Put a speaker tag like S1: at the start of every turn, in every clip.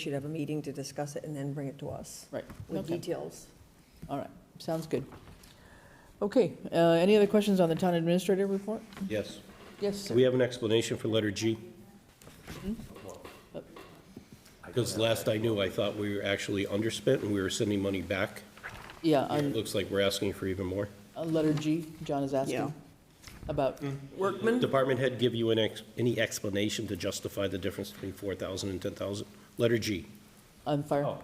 S1: should have a meeting to discuss it and then bring it to us
S2: Right,
S1: with
S2: Okay.
S1: details.
S2: all right, sounds good. Okay, uh, any other questions on the town administrator report?
S3: Yes.
S2: Yes, sir.
S3: Do we have an explanation for letter G? Because last I knew, I thought we were actually underspent and we were sending money back.
S2: yeah,
S3: It
S2: on,
S3: looks like we're asking for even more.
S2: on letter G, John is
S1: Yeah.
S2: asking about,
S1: Workman?
S3: Department head give you an ex, any explanation to justify the difference between four thousand and ten thousand? Letter G.
S2: on fire.
S4: Oh.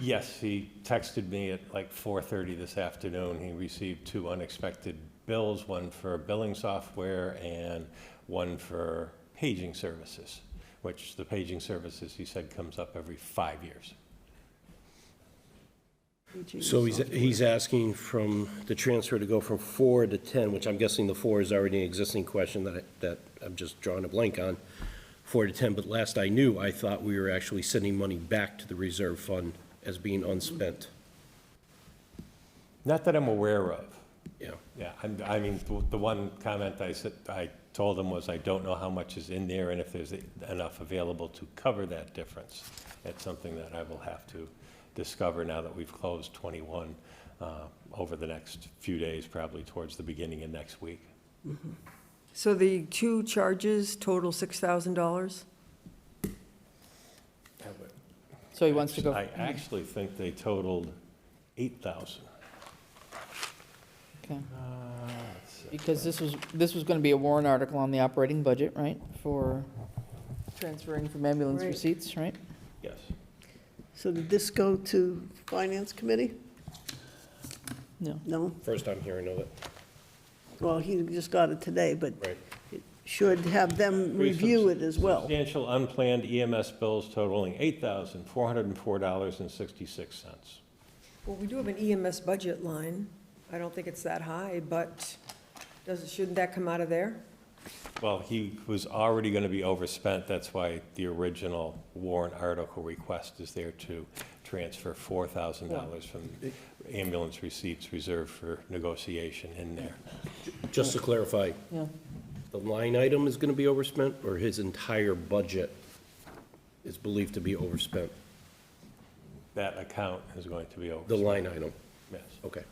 S4: Yes, he texted me at like 4:30 this afternoon. He received two unexpected bills, one for billing software and one for paging services, which the paging services, he said, comes up every five years.
S3: So he's, he's asking from the transfer to go from four to ten, which I'm guessing the four is already an existing question that, I- that I'm just drawing a blank on, four to ten, but last I knew, I thought we were actually sending money back to the reserve fund as being unspent,
S4: Not that I'm aware of.
S3: yeah.
S4: Yeah, I'm, I mean, the- the one comment I said, I told him was, I don't know how much is in there and if there's enough available to cover that difference. That's something that I will have to discover now that we've closed twenty-one, uh, over the next few days, probably towards the beginning of next week.
S1: So the two charges total $6,000?
S2: So he wants to go,
S4: I actually think they totaled eight thousand.
S2: okay. Because this was, this was gonna be a warrant article on the operating budget, right, for transferring from ambulance
S1: Right.
S2: receipts, right?
S4: Yes.
S5: So did this go to Finance Committee?
S2: No,
S5: No?
S3: First time hearing of it,
S5: Well, he just got it today, but
S3: right?
S5: should have them
S4: Three
S5: review
S4: subs-
S5: it as well.
S4: Substantial unplanned EMS bills totaling eight thousand, four hundred and four dollars and sixty-six cents.
S1: Well, we do have an EMS budget line. I don't think it's that high, but does, shouldn't that come out of there?
S4: Well, he was already going to be overspent, that's why the original warrant article request is there to transfer $4,000 from ambulance receipts reserved for negotiation in there.
S3: Just to clarify,
S2: yeah,
S3: the line item is gonna be overspent, or his entire budget is believed to be overspent?
S4: That account is going to be
S3: The
S4: overspent,
S3: line item,
S4: yes.
S3: okay.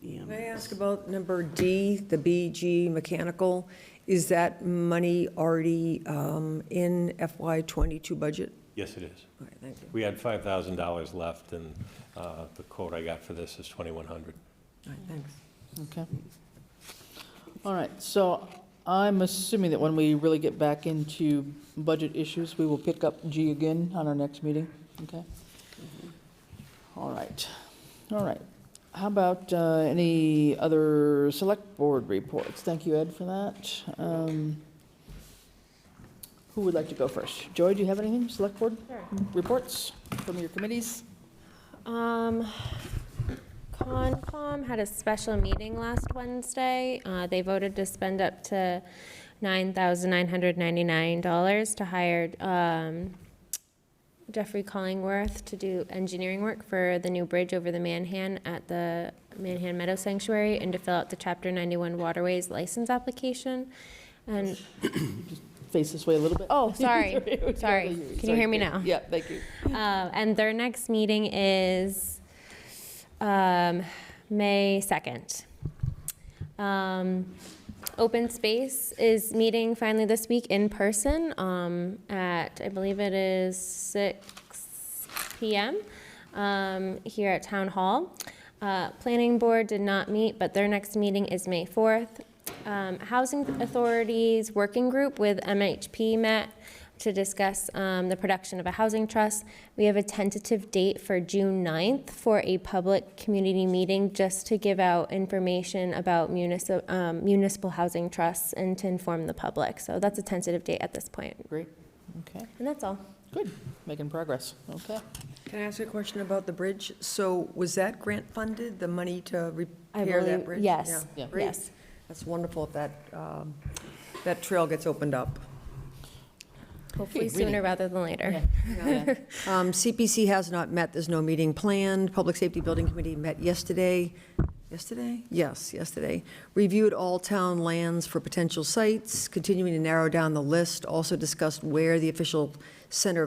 S1: Can I ask about number D, the BG mechanical? Is that money already um, in FY '22 budget?
S4: Yes, it is.
S1: All right, thank you.
S4: We had $5,000 left, and uh, the quote I got for this is 2,100.
S1: All right, thanks.
S2: okay. All right, so I'm assuming that when we really get back into budget issues, we will pick up G again on our next meeting, okay? All right, all right. How about uh, any other select board reports? Thank you, Ed, for that. Um, Who would like to go first? Joy, do you have anything, select board reports from your committees?
S6: Um, Concom had a special meeting last Wednesday. Uh, They voted to spend up to $9,999 to hire um, Jeffrey Collingworth to do engineering work for the new bridge over the Manhan at the Manhan Meadow Sanctuary and to fill out the Chapter 91 Waterways license application. And,
S2: Face this way a little bit.
S6: oh, sorry, sorry. Can you hear me now?
S2: Yeah, thank you.
S6: Uh, And their next meeting is um, May 2nd. Um, Open Space is meeting finally this week in person um, at, I believe it is 6 PM um, here at Town Hall. Uh, Planning Board did not meet, but their next meeting is May 4th. Um, Housing Authorities Working Group with MHP met to discuss um, the production of a housing trust. We have a tentative date for June 9th for a public community meeting just to give out information about municipal, um, municipal housing trusts and to inform the public. So that's a tentative date at this point.
S2: Great, okay,
S6: And that's all.
S2: good, making progress, okay.
S1: Can I ask you a question about the bridge? So was that grant funded, the money to repair
S6: believe-
S1: that bridge?
S6: yes,
S1: Yeah,
S2: Yeah.
S1: great.
S6: yes.
S1: That's wonderful if that, um, that trail gets opened up.
S6: Hopefully
S2: reading.
S6: sooner rather than later.
S2: Yeah.
S1: Um, CPC has not met, there's no meeting planned. Public Safety Building Committee met yesterday, yesterday? Yes, yesterday. Reviewed all town lands for potential sites, continuing to narrow down the list. Also discussed where the official center of